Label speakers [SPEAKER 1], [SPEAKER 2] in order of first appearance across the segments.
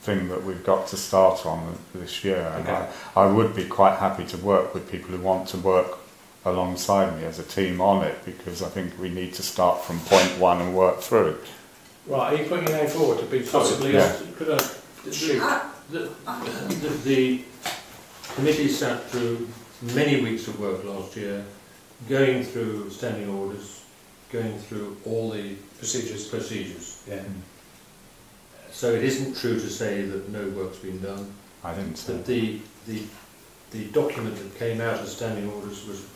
[SPEAKER 1] thing that we've got to start on this year. And
[SPEAKER 2] Okay.
[SPEAKER 1] I, I would be quite happy to work with people who want to work alongside me as a team on it because I think we need to start from point one and work through.
[SPEAKER 2] Right, are you putting your name forward to be
[SPEAKER 3] Possibly,
[SPEAKER 1] Yeah.
[SPEAKER 3] could I,
[SPEAKER 2] Ah.
[SPEAKER 3] the, the, the, the committee sat through many weeks of work last year, going through standing orders, going through all the
[SPEAKER 2] Procedures.
[SPEAKER 3] procedures.
[SPEAKER 2] Yeah.
[SPEAKER 3] So it isn't true to say that no work's been done,
[SPEAKER 1] I didn't say
[SPEAKER 3] that the, the, the document that came out of standing orders was,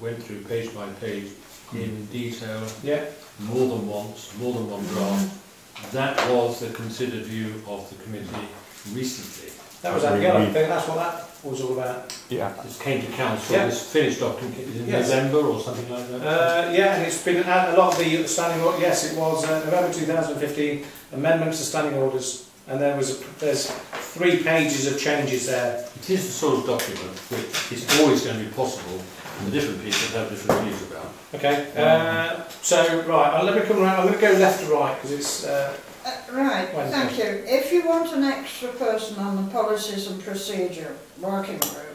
[SPEAKER 3] went through page by page in detail,
[SPEAKER 2] Yeah.
[SPEAKER 3] more than once, more than one draft. That was the considered view of the committee recently.
[SPEAKER 2] That
[SPEAKER 1] That's
[SPEAKER 2] was that
[SPEAKER 1] really
[SPEAKER 2] yellow
[SPEAKER 1] neat.
[SPEAKER 2] thing. That's what that was all about.
[SPEAKER 1] Yeah.
[SPEAKER 3] This came to council,
[SPEAKER 2] Yeah.
[SPEAKER 3] this finished document in
[SPEAKER 2] Yes.
[SPEAKER 3] November or something like that.
[SPEAKER 2] Uh, yeah, and it's been a a lot of the standing orders. Yes, it was uh, November 2015 amendments to standing orders, and there was a, there's three pages of changes there.
[SPEAKER 3] It is the sort of document which is always going to be possible, and the different people have different views about.
[SPEAKER 2] Okay. Uh, so right, I'll let me come round. I'm going to go left to right because it's. Uh,
[SPEAKER 4] Uh, Right,
[SPEAKER 2] Well,
[SPEAKER 4] thank you. If you want an extra person on the policies and procedure working group,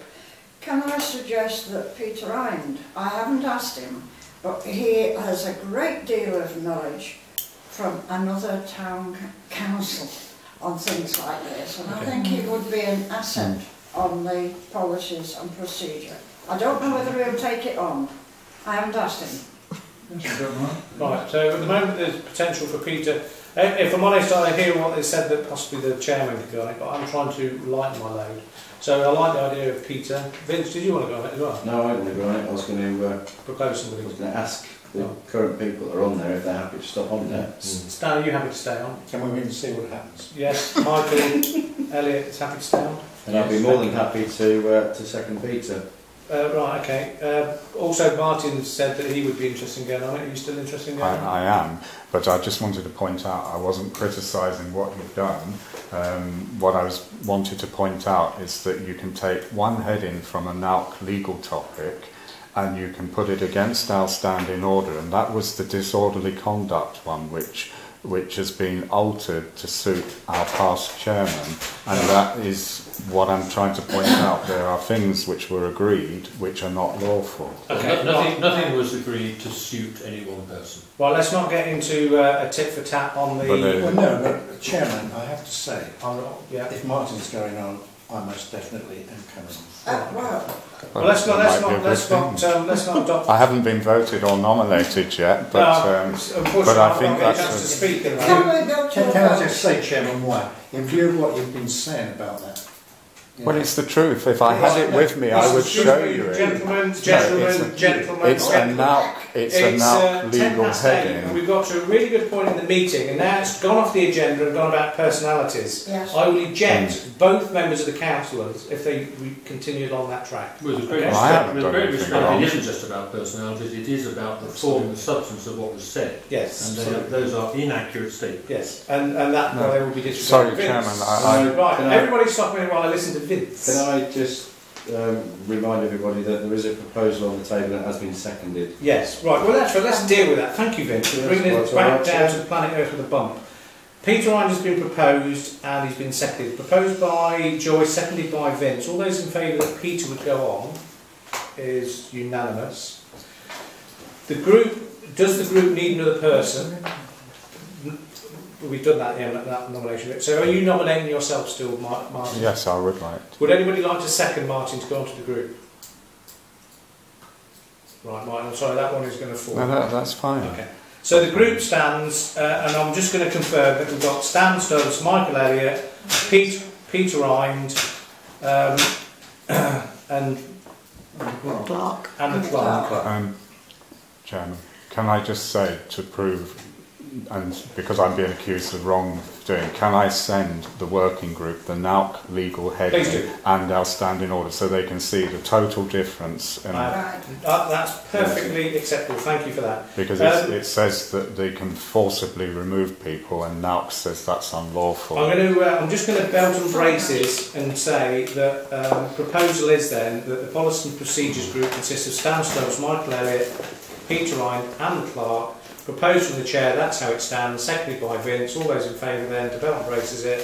[SPEAKER 4] can I suggest that Peter Eind, I haven't asked him, but he has a great deal of knowledge from another town c- council on things like this, and I
[SPEAKER 3] Okay.
[SPEAKER 4] think he would be an asset on the policies and procedure. I don't know whether he'll take it on. I haven't asked him.
[SPEAKER 2] Right, so at the moment there's potential for Peter. Uh, If if I'm honest, I hear what they said that possibly the chairman could go on it, but I'm trying to lighten my load. So I like the idea of Peter. Vince, did you want to go on it as well?
[SPEAKER 5] No, I didn't agree on it. I was going to, uh,
[SPEAKER 2] Propose
[SPEAKER 5] I was
[SPEAKER 2] somebody.
[SPEAKER 5] going to ask the current people that are on there if they're happy to stop on there.
[SPEAKER 2] Stan, are you happy to stay on?
[SPEAKER 6] Can we wait and see what happens?
[SPEAKER 2] Yes, Michael, Elliot is happy to stay on.
[SPEAKER 5] And I'd be more than happy to uh, to second Peter.
[SPEAKER 2] Uh, right, okay. Uh, also, Martin said that he would be interested in going on it. Are you still interested in going on it?
[SPEAKER 1] I, I am, but I just wanted to point out I wasn't criticising what you've done. Um, what I was wanted to point out is that you can take one heading from a NALC legal topic and you can put it against our standing order, and that was the disorderly conduct one, which which has been altered to suit our past chairman, and that is what I'm trying to point out. There are things which were agreed which are not lawful.
[SPEAKER 2] Okay,
[SPEAKER 3] No- Nothing, nothing was agreed to suit any one person.
[SPEAKER 2] Well, let's not get into uh, a tit for tat on the.
[SPEAKER 1] But, uh,
[SPEAKER 6] Well, no, but Chairman, I have to say,
[SPEAKER 2] on, yeah.
[SPEAKER 6] if Martin's going on, I most definitely am coming on.
[SPEAKER 4] Uh, well,
[SPEAKER 2] Well, let's not,
[SPEAKER 1] That
[SPEAKER 2] let's
[SPEAKER 1] might be a
[SPEAKER 2] not,
[SPEAKER 1] good
[SPEAKER 2] let's
[SPEAKER 1] thing.
[SPEAKER 2] not, um, let's not adopt
[SPEAKER 1] I haven't been voted or nominated yet, but
[SPEAKER 2] No,
[SPEAKER 1] um,
[SPEAKER 2] unfortunately,
[SPEAKER 1] but I
[SPEAKER 2] I've
[SPEAKER 1] think
[SPEAKER 2] not got a
[SPEAKER 1] that's
[SPEAKER 2] chance to
[SPEAKER 1] a-
[SPEAKER 2] speak. at the moment.
[SPEAKER 4] can we go to a
[SPEAKER 6] Can, can I just
[SPEAKER 4] vote?
[SPEAKER 6] say, Chairman, why? In view of what you've been saying about that. you
[SPEAKER 1] well,
[SPEAKER 6] know,
[SPEAKER 1] it's the truth. If I had it with me, I would show you it.
[SPEAKER 2] Gentlemen,
[SPEAKER 1] it's
[SPEAKER 2] gentlemen,
[SPEAKER 1] a-
[SPEAKER 2] gentlemen.
[SPEAKER 1] It's a now, it's a now
[SPEAKER 2] uh, 10
[SPEAKER 1] legal
[SPEAKER 2] past eight, and
[SPEAKER 1] heading.
[SPEAKER 2] We've got to a really good point in the meeting, and now it's gone off the agenda and gone about personalities.
[SPEAKER 4] Yes.
[SPEAKER 2] I will eject
[SPEAKER 1] Hmm.
[SPEAKER 2] both members of the councillors if they re- continued on that track.
[SPEAKER 3] With a great
[SPEAKER 2] Okay.
[SPEAKER 1] Well, I
[SPEAKER 3] respect,
[SPEAKER 1] haven't
[SPEAKER 3] with a
[SPEAKER 1] done
[SPEAKER 3] great
[SPEAKER 1] anything
[SPEAKER 3] respect,
[SPEAKER 1] wrong.
[SPEAKER 3] it isn't just about personalities, it is about the form, the substance of what was said.
[SPEAKER 2] Yes.
[SPEAKER 3] And they are- those are inaccurate statements.
[SPEAKER 2] Yes, and, and that
[SPEAKER 1] No.
[SPEAKER 2] they will be disregarded.
[SPEAKER 1] Sorry,
[SPEAKER 2] Vince.
[SPEAKER 1] Chairman, I-
[SPEAKER 5] I-
[SPEAKER 2] Right,
[SPEAKER 5] Can I-
[SPEAKER 2] everybody stop me while I listen to Vince.
[SPEAKER 5] Can I just um, remind everybody that there is a proposal on the table that has been seconded?
[SPEAKER 2] Yes, right. Well, that's right. Let's deal with that. Thank you, Vince.
[SPEAKER 5] Yes,
[SPEAKER 2] Bringing
[SPEAKER 5] well,
[SPEAKER 2] it
[SPEAKER 5] it's
[SPEAKER 2] back
[SPEAKER 5] alright,
[SPEAKER 2] down
[SPEAKER 5] Chair.
[SPEAKER 2] to the planet Earth with a bump. Peter Ryan has been proposed and he's been seconded. Proposed by Joyce, seconded by Vince. All those in favour that Peter would go on is unanimous. The group does the group need another person? We've done that, yeah, that nomination bit. So are you nominating yourself still, Mar- Martin?
[SPEAKER 1] Yes, I would like. to.
[SPEAKER 2] Would anybody like to second Martin to go onto the group? Right, Martin, I'm sorry, that one is going to fall.
[SPEAKER 1] No, that, that's fine.
[SPEAKER 2] Okay. So the group stands, uh, and I'm just going to confirm that we've got Stan Stubbs, Michael Elliott, Pete, Peter Rind, um, and
[SPEAKER 4] Clark.
[SPEAKER 2] and the clerk.
[SPEAKER 1] Um, Chairman, can I just say to prove, and because I'm being accused of wrongdoing, can I send the working group the NALC legal
[SPEAKER 2] Please
[SPEAKER 1] heading
[SPEAKER 2] do.
[SPEAKER 1] and our standing order so they can see the total difference? in-
[SPEAKER 2] Uh,
[SPEAKER 4] Right.
[SPEAKER 2] Uh, that's perfectly acceptable. Thank you for that.
[SPEAKER 1] Because it's,
[SPEAKER 2] Um,
[SPEAKER 1] it says that they can forcibly remove people, and NALC says that's unlawful.
[SPEAKER 2] I'm going to. Uh, I'm just going to belt and braces and say that um, proposal is then that the policy and procedures group consists of Stan Stokes, Michael Elliott, Peter Ryan, and Clark. Proposed from the chair. That's how it stands. Seconded by Vince. All those in favour then to belt and braces it.